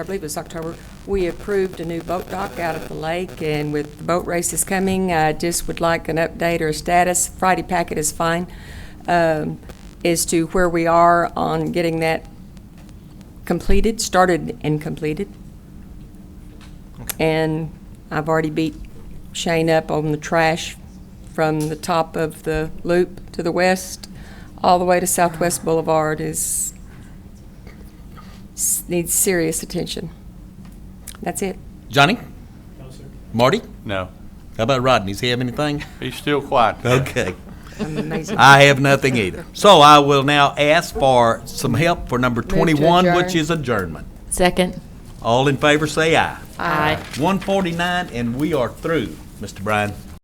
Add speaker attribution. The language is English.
Speaker 1: I believe it was October, we approved a new boat dock out at the lake, and with the boat races coming, I just would like an update or a status. Friday packet is fine, um, as to where we are on getting that completed, started and completed. And I've already beat Shane up on the trash from the top of the loop to the west, all the way to Southwest Boulevard is, s- needs serious attention. That's it.
Speaker 2: Johnny? Marty?
Speaker 3: No.
Speaker 2: How about Rodney? Does he have anything?
Speaker 3: He's still quiet.
Speaker 2: Okay.
Speaker 1: I'm amazing.
Speaker 2: I have nothing either. So I will now ask for some help for number
Speaker 1: to
Speaker 2: 21, which
Speaker 1: adjourn.
Speaker 2: is adjournment.
Speaker 4: Second.
Speaker 2: All in favor, say aye.
Speaker 4: Aye.
Speaker 2: 149, and we are through, Mr. Bryan.